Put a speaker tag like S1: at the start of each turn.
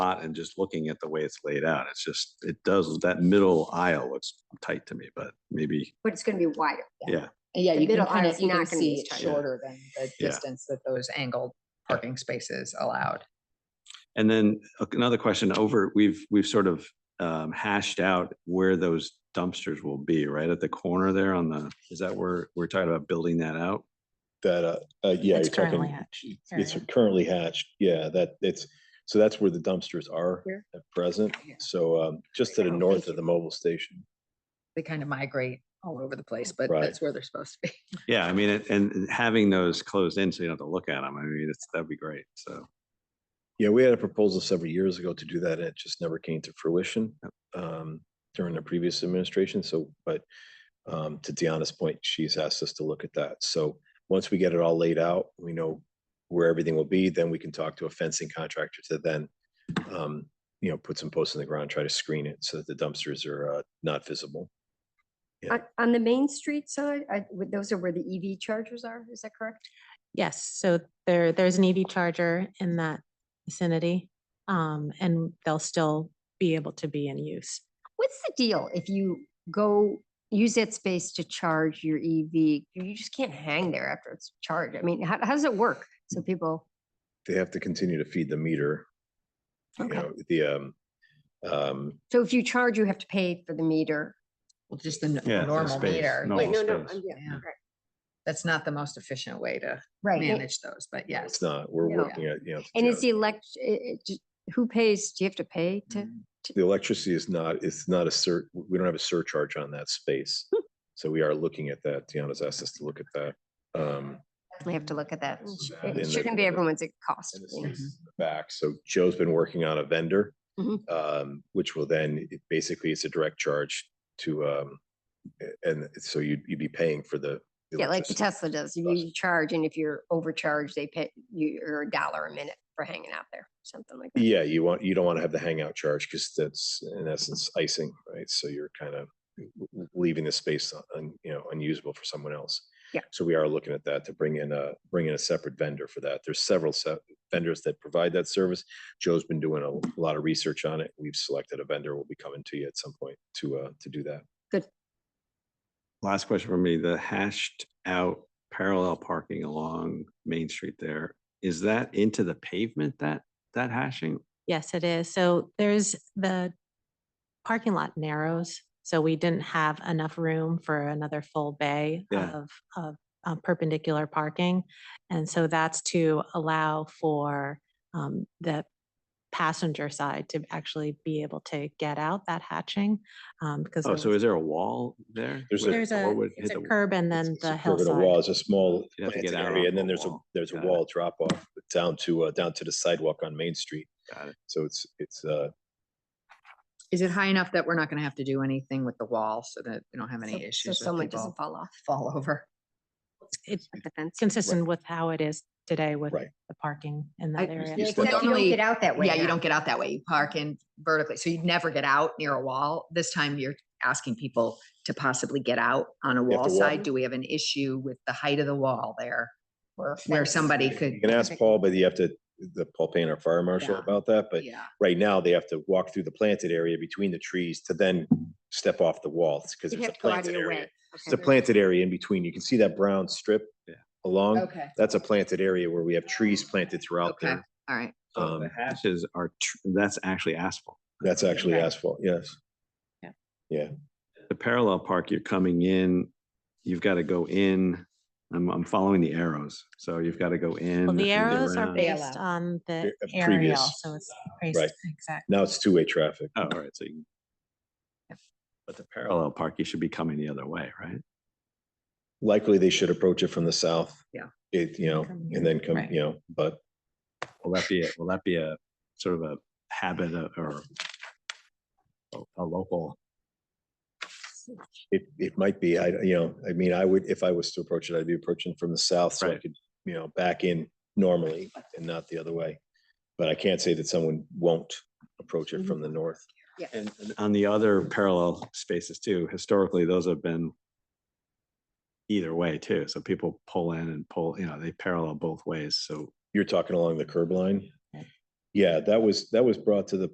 S1: lot and just looking at the way it's laid out, it's just, it does, that middle aisle looks tight to me, but maybe,
S2: but it's gonna be wider.
S3: Yeah,
S2: The
S3: you can
S2: middle
S3: kind of,
S2: aisle's
S3: you can
S2: not gonna be
S3: see
S2: as
S3: it
S2: tight.
S1: Yeah.
S3: shorter than the
S1: Yeah.
S3: distance that those angled parking spaces allowed.
S1: and then uh, another question over, we've, we've sort of um, hashed out where those dumpsters will be, right? At the corner there on the, is that where, we're talking about building that out?
S4: That, uh, uh, yeah, you're
S5: It's currently
S4: talking,
S5: hatched.
S4: it's
S5: area.
S4: currently hatched, yeah, that, it's, so that's where the dumpsters are
S3: Here?
S4: at present.
S3: Yeah.
S4: So, um, just to the
S3: Oh,
S4: north
S3: thank
S4: of the mobile station.
S3: They kind of migrate all over the place, but
S4: Right.
S3: that's where they're supposed to be.
S1: Yeah, I mean, it- and and having those closed in so you don't have to look at them, I mean, it's, that'd be great, so.
S4: Yeah, we had a proposal several years ago to do that, and it just never came to fruition, um, during the previous administration, so, but, um, to Deanna's point, she's asked us to look at that. So, once we get it all laid out, we know where everything will be, then we can talk to a fencing contractor to then, um, you know, put some posts in the ground, try to screen it so that the dumpsters are, uh, not visible. Yeah.
S2: On, on the Main Street side, I, would- those are where the EV chargers are, is that correct?
S5: Yes, so there, there's an EV charger in that vicinity. Um, and they'll still be able to be in use.
S2: What's the deal if you go use that space to charge your EV? You just can't hang there after it's charged. I mean, how, how does it work? So people,
S4: They have to continue to feed the meter, you
S2: okay.
S4: know, the, um, um,
S2: So if you charge, you have to pay for the meter.
S3: Well, just the n-
S1: Yeah, the
S3: normal
S1: space,
S3: meter.
S1: normal
S3: which-
S1: Wait, no, no, space. I'm-
S3: yeah, That's not the most efficient way to
S2: Right. and-
S3: manage those, but yes.
S4: it's not, we're
S2: No.
S4: working at, you know.
S2: And
S4: yeah.
S2: it's the elect, it- it ju- who pays? Do you have to pay to?
S4: The electricity is not, it's not a sur, we don't have a surcharge on that space.
S2: Hmm.
S4: So we are looking at that. Deanna's asked us to look at that. Um,
S2: Definitely have to look at that. It
S4: It's
S2: sh-
S4: bad in
S2: It
S4: the-
S2: shouldn't be everyone's at cost.
S4: and this
S2: you know.
S4: is in the Back, so Joe's been working on a vendor,
S2: Mhm.
S4: um, which will then, it basically it's a direct charge to, um, a- and it's- so you'd, you'd be paying for the. the
S2: Yeah, like the
S4: electricity.
S2: Tesla does. You
S4: bus.
S2: you charge and if you're overcharged, they pay, you- you're a dollar a minute for hanging out there, something like that.
S4: Yeah, you want, you don't want to have the hangout charge because that's in essence icing, right? So you're kind of leaving the space un- un, you know, unusable for someone else.
S2: Yeah.
S4: So we are looking at that to bring in a, bring in a separate vendor for that. There's several se- vendors that provide that service. Joe's been doing a lot of research on it. We've selected a vendor. We'll be coming to you at some point to, uh, to do that.
S1: Last question for me, the hashed out parallel parking along Main Street there, is that into the pavement that, that hashing?
S5: Yes, it is. So there's the parking lot narrows. So we didn't have enough room for another full bay
S1: Yeah.
S5: of, of uh, perpendicular parking. And so that's to allow for um, the passenger side to actually be able to get out that hatching. um, Because
S1: Oh,
S5: there
S1: so
S5: was-
S1: is there a wall there?
S4: There's
S1: where
S4: a-
S5: there's
S1: the
S5: a,
S1: wall would
S5: it's
S1: hit
S5: a
S1: the-
S5: curb and then
S4: It's-
S5: the
S4: it's a curb and a wall.
S5: hillside.
S4: It's a small
S1: You'd have to
S4: planting
S1: get out
S4: area,
S1: onto
S4: and then
S1: a
S4: there's a,
S1: wall.
S4: there's a
S1: Got it.
S4: wall drop off down to, uh, down to the sidewalk on Main Street.
S1: Got it.
S4: So it's, it's, uh,
S3: Is it high enough that we're not going to have to do anything with the wall so that we don't have
S2: So-
S3: any
S2: So
S3: issues with
S2: someone doesn't
S3: people
S2: fall off
S3: fall over?
S5: It's
S2: the fence.
S5: consistent with how it is today with
S4: Right.
S5: the parking in
S3: I-
S5: that area.
S4: Yes,
S2: It's like
S3: but
S2: You don't
S3: normally-
S2: get out that way.
S3: Yeah, you
S2: now.
S3: don't get out that way. You park in vertically. So you'd never get out near a wall. This time you're asking people to possibly get out on a
S4: have
S3: wall
S4: to walk.
S3: side. Do we have an issue with the height of the wall there?
S2: Or a
S3: Where
S2: fence.
S3: somebody could.
S4: You can ask Paul, but you have to, the Paul Payne, our fire marshal
S3: Yeah.
S4: about that, but
S3: Yeah,
S4: right now they have to walk through the planted area between the trees to then step off the walls, because
S2: You'd
S4: there's a
S2: have to go out of
S4: planted
S2: your
S4: area.
S2: way.
S4: It's a
S2: Okay.
S4: planted area in between. You can see that brown strip
S1: Yeah.
S4: along.
S3: okay,
S4: That's a planted area where we have trees planted throughout
S3: Okay.
S4: there.
S3: all right.
S1: So the
S4: Um,
S1: hashes are, tr- that's actually asphalt.
S4: That's actually
S3: Okay.
S4: asphalt, yes.
S5: Yeah.
S4: Yeah,
S1: The parallel park, you're coming in, you've got to go in, I'm, I'm following the arrows, so you've got to go in.
S5: Well,
S1: and
S5: the arrows are
S1: around.
S3: big.
S5: based on the
S4: uh,
S5: aerial,
S4: previous.
S5: so it's
S4: Right.
S5: based, exactly.
S4: now it's two-way traffic.
S1: Oh, all right, so you. But the parallel park, you should be coming the other way, right?
S4: Likely they should approach it from the south.
S3: Yeah.
S4: It, you know,
S5: Come
S4: and then come,
S5: right.
S4: you know, but
S1: Will that be, a- will that be a sort of a habit uh, or a- a local?
S4: It, it might be, I, you know, I mean, I would, if I was to approach it, I'd be approaching from the south, so I
S1: Right.
S4: could, you know, back in normally and not the other way. But I can't say that someone won't approach it from the north.
S1: And and on the other parallel spaces too, historically, those have been either way too. So people pull in and pull, you know, they parallel both ways. So
S4: You're talking along the curb line?
S5: Right.
S4: Yeah, that was, that was brought to the